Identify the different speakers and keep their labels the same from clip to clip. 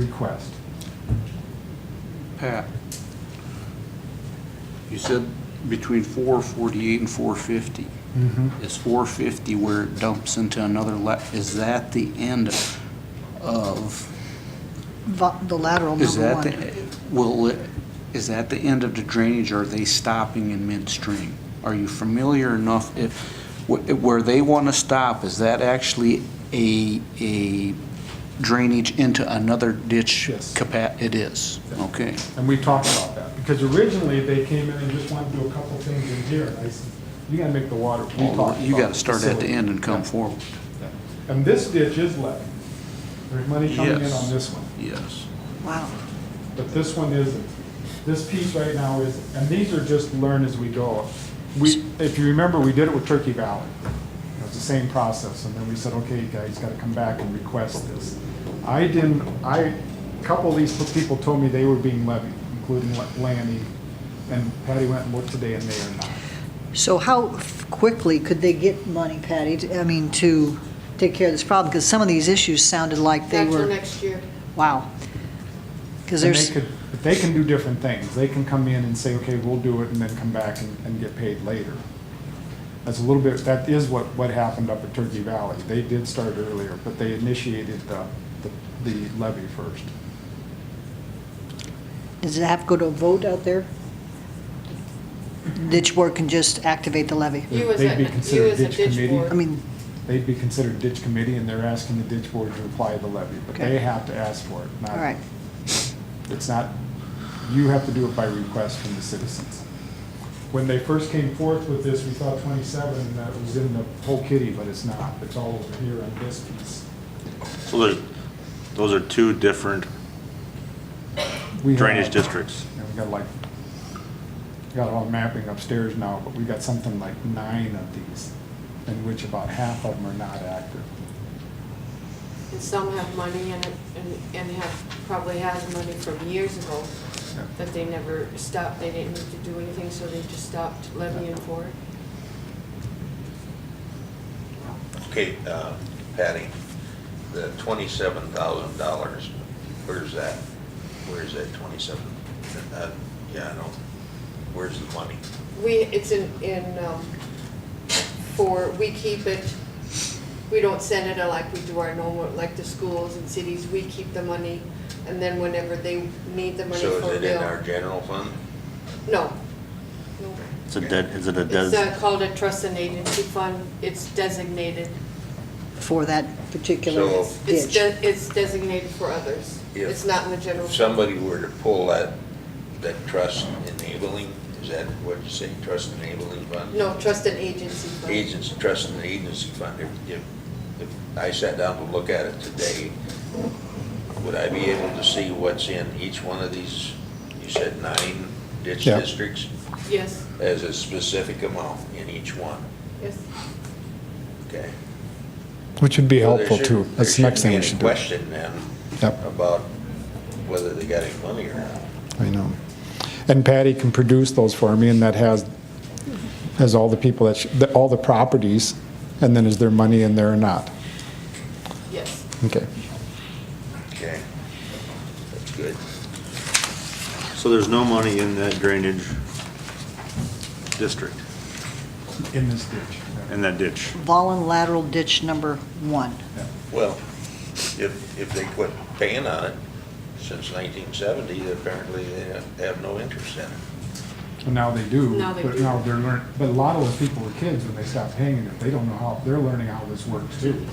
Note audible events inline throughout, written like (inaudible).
Speaker 1: request.
Speaker 2: Pat, you said between 448 and 450.
Speaker 3: Mm-hmm.
Speaker 2: Is 450 where it dumps into another la, is that the end of,
Speaker 3: Va- the lateral
Speaker 2: is
Speaker 3: number
Speaker 2: that
Speaker 3: one.
Speaker 2: the, will, it- is that the end of the drainage, or are they stopping in midstream? Are you familiar enough, if, wh- where they want to stop, is that actually a, a drainage into another ditch?
Speaker 1: Yes.
Speaker 2: capa- It is, okay.
Speaker 1: And we talked about that, because originally they came in and just wanted to do a couple things in here, and I said, you gotta make the water. We
Speaker 2: Well,
Speaker 1: talked
Speaker 2: You
Speaker 1: about
Speaker 2: got to start at the
Speaker 1: facility.
Speaker 2: end and come
Speaker 1: Yeah.
Speaker 2: forward.
Speaker 1: Yeah. And this ditch is left. There's money coming in
Speaker 2: Yes.
Speaker 1: on this one,
Speaker 2: Yes.
Speaker 3: Wow.
Speaker 1: but this one isn't. This piece right now is, and these are just learn as we go. We, if you remember, we did it with Turkey Valley. It was the same process, and then we said, okay, you guys gotta come back and request this. I didn't, I, a couple of these people told me they were being levied, including Lanny, and Patty went and looked today, and they are not.
Speaker 3: So how f- quickly could they get money, Patty, to- I mean, to take care of this problem? Because some of these issues sounded like they
Speaker 4: Back till
Speaker 3: were,
Speaker 4: next year.
Speaker 3: wow. Because
Speaker 1: And
Speaker 3: there's,
Speaker 1: they could, but they can do different things. They can come in and say, okay, we'll do it, and then come back and, and get paid later. That's a little bit, that is what, what happened up at Turkey Valley. They did start earlier, but they initiated the, the- the levy first.
Speaker 3: does it have to go to a vote out there? Ditch board can just activate the levy?
Speaker 4: You as
Speaker 1: They'd
Speaker 4: a-
Speaker 1: be
Speaker 4: you
Speaker 1: considered
Speaker 4: as a ditch
Speaker 1: committee.
Speaker 4: board.
Speaker 3: I mean,
Speaker 1: They'd be considered ditch committee, and they're asking the ditch board to apply the levy, but they
Speaker 3: Okay.
Speaker 1: have to ask for it. not-
Speaker 3: all right,
Speaker 1: It's not, you have to do it by request from the citizens. When they first came forth with this, we thought 27, and that was in the whole kitty, but it's not. It's all over here on this piece.
Speaker 5: So there's, those are two different
Speaker 1: We have-
Speaker 5: drainage districts.
Speaker 1: And we got like, got all mapping upstairs now, but we got something like nine of these, in which about half of them are not active.
Speaker 4: And some have money in it, and, and have, probably has money from years ago, that they never stopped, they didn't need to do anything, so they just stopped levying for it.
Speaker 6: Okay, uh, Patty, the twenty-seven thousand dollars, where's that? Where's that twenty-seven? Uh, Yeah, I know. Where's the money?
Speaker 4: We, it's in, in, um, for, we keep it, we don't send it out like we do our normal, like the schools and cities, we keep the money, and then whenever they need the money for
Speaker 6: So
Speaker 4: bill.
Speaker 6: is it in our general fund?
Speaker 4: No. No.
Speaker 5: It's a dead, is it a
Speaker 4: It's
Speaker 5: dead?
Speaker 4: uh, called a trust and agency fund, it's designated.
Speaker 3: for that particular
Speaker 6: So-
Speaker 4: It's,
Speaker 3: ditch.
Speaker 4: de- it's designated for others.
Speaker 6: Yeah.
Speaker 4: It's not in the general.
Speaker 6: If somebody were to pull that, that trust enabling, is that what you say, trust enabling fund?
Speaker 4: No, trust and agency fund.
Speaker 6: Agents, trust and agency fund. If, if, if I sat down to look at it today, would I be able to see what's in each one of these, you said nine ditch
Speaker 1: Yeah.
Speaker 6: districts?
Speaker 4: Yes,
Speaker 6: As a specific amount in each one,
Speaker 4: yes.
Speaker 6: okay?
Speaker 1: Which would be
Speaker 6: So there
Speaker 1: helpful
Speaker 6: shouldn't-
Speaker 1: too. That's the
Speaker 6: there
Speaker 1: next thing we should
Speaker 6: shouldn't
Speaker 1: do.
Speaker 6: be any Question then,
Speaker 1: Yep.
Speaker 6: about whether they got any money or not.
Speaker 1: I know. And Patty can produce those for me, and that has, has all the people that, sh- the- all the properties, and then is there money in there or not?
Speaker 4: Yes.
Speaker 1: Okay.
Speaker 6: Okay, that's good.
Speaker 5: So there's no money in that drainage district,
Speaker 1: In this ditch.
Speaker 5: in that ditch.
Speaker 3: Volun lateral ditch number one.
Speaker 6: Well, if, if they quit paying on it since 1970, apparently they have no interest in it.
Speaker 1: And now they do.
Speaker 4: Now they
Speaker 1: But
Speaker 4: do.
Speaker 1: now they're learning, but a lot of those people were kids when they stopped paying it. They don't know how, they're learning how this works too. (laughs)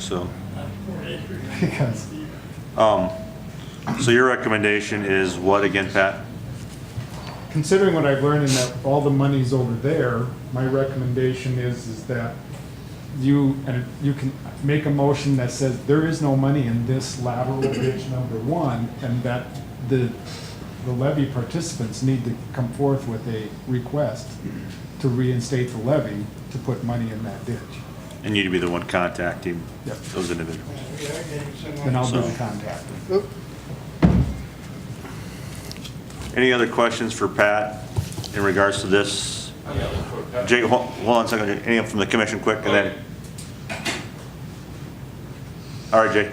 Speaker 5: So,
Speaker 1: Because
Speaker 5: um, so your recommendation is what again, Pat?
Speaker 1: considering what I've learned and that all the money's over there, my recommendation is, is that you, and you can make a motion that says there is no money in this lateral ditch number one, and that the, the levy participants need to come forth with a request to reinstate the levy to put money in that ditch.
Speaker 5: And you'd be the one contacting
Speaker 1: Yep.
Speaker 5: those individuals.
Speaker 1: And I'll do the
Speaker 5: So-
Speaker 1: contacting.
Speaker 5: Any other questions for Pat in regards to this? Jake, hol- hold on a second, any from the commission quick, and then? All right, Jay.